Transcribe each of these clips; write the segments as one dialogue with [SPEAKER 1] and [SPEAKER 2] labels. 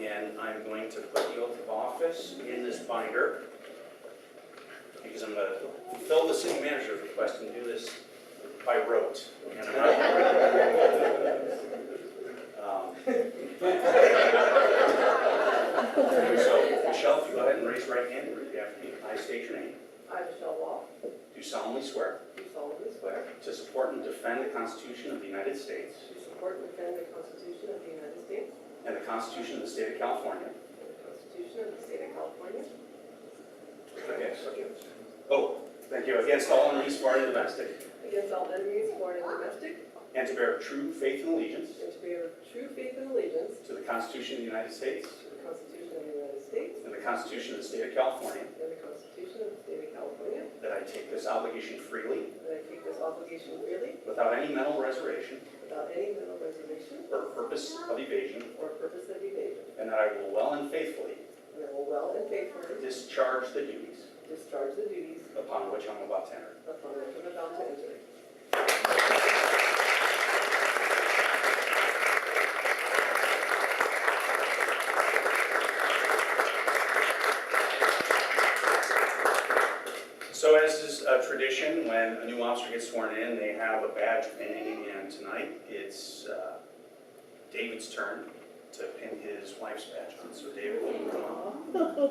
[SPEAKER 1] and I'm going to put the oath of office in this binder because I'm going to fill the city manager's request and do this by rote. And I'm not- Um, So, Michelle, if you go ahead and raise your right hand and repeat after me. I state your name.
[SPEAKER 2] I, Michelle Wall,
[SPEAKER 1] Do solemnly swear
[SPEAKER 2] do solemnly swear
[SPEAKER 1] to support and defend the Constitution of the United States
[SPEAKER 2] to support and defend the Constitution of the United States
[SPEAKER 1] and the Constitution of the State of California.
[SPEAKER 2] and the Constitution of the State of California
[SPEAKER 1] Against- Oh, thank you. Against all enemies, foreign and domestic.
[SPEAKER 2] against all enemies, foreign and domestic,
[SPEAKER 1] And to bear true faith and allegiance
[SPEAKER 2] and to bear true faith and allegiance
[SPEAKER 1] to the Constitution of the United States
[SPEAKER 2] to the Constitution of the United States
[SPEAKER 1] and the Constitution of the State of California,
[SPEAKER 2] and the Constitution of the State of California,
[SPEAKER 1] that I take this obligation freely,
[SPEAKER 2] that I take this obligation freely
[SPEAKER 1] without any mental reservation
[SPEAKER 2] without any mental reservation
[SPEAKER 1] or purpose of evasion,
[SPEAKER 2] or purpose of evasion,
[SPEAKER 1] and that I will well and faithfully
[SPEAKER 2] and I will well and faithfully
[SPEAKER 1] discharge the duties
[SPEAKER 2] discharge the duties
[SPEAKER 1] upon which I'm about to enter.
[SPEAKER 2] upon which I'm about to enter.
[SPEAKER 1] So as is uh, tradition, when a new officer gets sworn in, they have a badge pinning, and tonight it's uh, David's turn to pin his wife's badge on. So David, will you come on?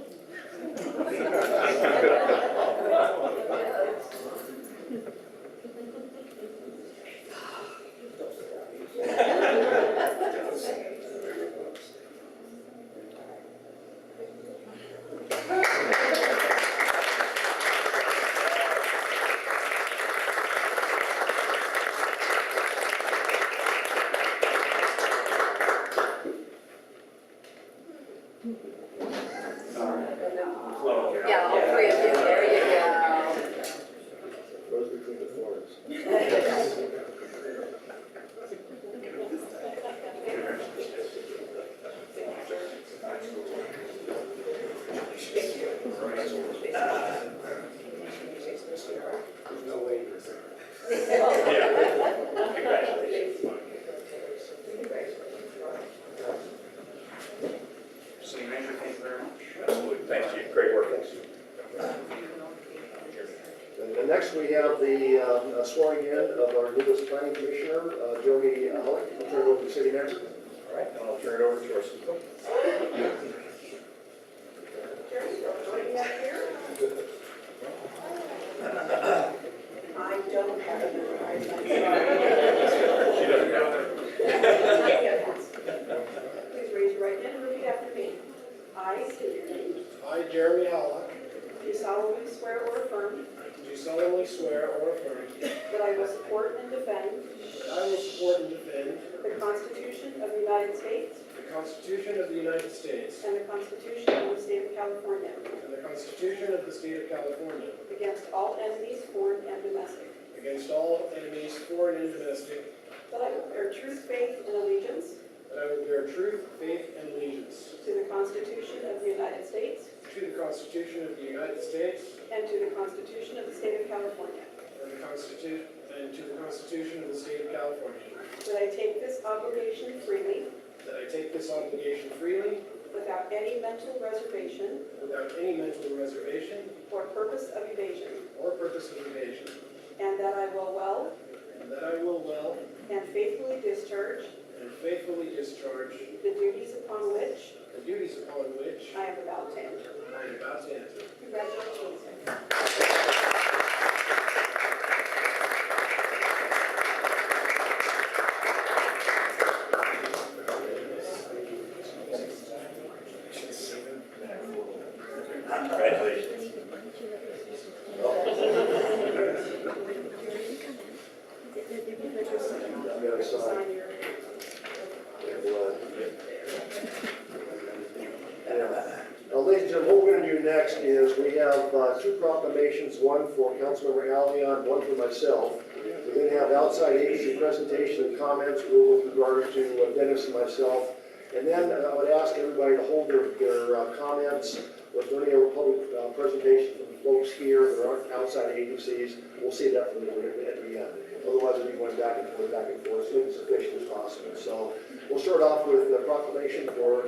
[SPEAKER 1] All right. Flow here.
[SPEAKER 3] Yeah, all three of you, there you
[SPEAKER 4] Goes between the forms. There's no way you're there.
[SPEAKER 1] Yeah. Congratulations. City manager, thank you very much. Absolutely, thank you, great work.
[SPEAKER 4] And and next, we have the uh, swearing in of our newest planning commissioner, uh, Jody Alec. I'll turn it over to the city manager.
[SPEAKER 5] All right, and I'll turn it over to our CEO.
[SPEAKER 2] I don't have a memorized.
[SPEAKER 1] She doesn't have it.
[SPEAKER 2] Please raise your right hand and repeat after me. I state your name.
[SPEAKER 4] I, Jeremy Alec,
[SPEAKER 2] Do solemnly swear or affirm
[SPEAKER 4] do solemnly swear or affirm
[SPEAKER 2] that I will support and defend
[SPEAKER 4] that I will support and defend
[SPEAKER 2] the Constitution of the United States
[SPEAKER 4] the Constitution of the United States
[SPEAKER 2] and the Constitution of the State of California
[SPEAKER 4] and the Constitution of the State of California
[SPEAKER 2] against all enemies, foreign and domestic,
[SPEAKER 4] against all enemies, foreign and domestic,
[SPEAKER 2] that I will bear true faith and allegiance
[SPEAKER 4] that I will bear true faith and allegiance
[SPEAKER 2] to the Constitution of the United States
[SPEAKER 4] to the Constitution of the United States
[SPEAKER 2] and to the Constitution of the State of California,
[SPEAKER 4] and the Constitution, and to the Constitution of the State of California,
[SPEAKER 2] that I take this obligation freely
[SPEAKER 4] that I take this obligation freely
[SPEAKER 2] without any mental reservation
[SPEAKER 4] without any mental reservation
[SPEAKER 2] or purpose of evasion,
[SPEAKER 4] or purpose of evasion,
[SPEAKER 2] and that I will well
[SPEAKER 4] and that I will well
[SPEAKER 2] and faithfully discharge
[SPEAKER 4] and faithfully discharge
[SPEAKER 2] the duties upon which
[SPEAKER 4] the duties upon which
[SPEAKER 2] I am about to enter.
[SPEAKER 4] I am about to enter.
[SPEAKER 2] Congratulations.
[SPEAKER 1] Congratulations.
[SPEAKER 4] uh,
[SPEAKER 2] Sign your.
[SPEAKER 4] Now, ladies and gentlemen, what we're going to do next is we have uh, two proclamations, one for Councilmember Alvion, one for myself. We then have outside agency presentation and comments with regard to uh, Dennis and myself. And then uh, I would ask everybody to hold their, their uh, comments with any other public uh, presentation from folks here that aren't outside agencies. We'll see that from the, at the end. Otherwise, we'll be going back and forth, back and forth, as efficient as possible. So we'll start off with the proclamation for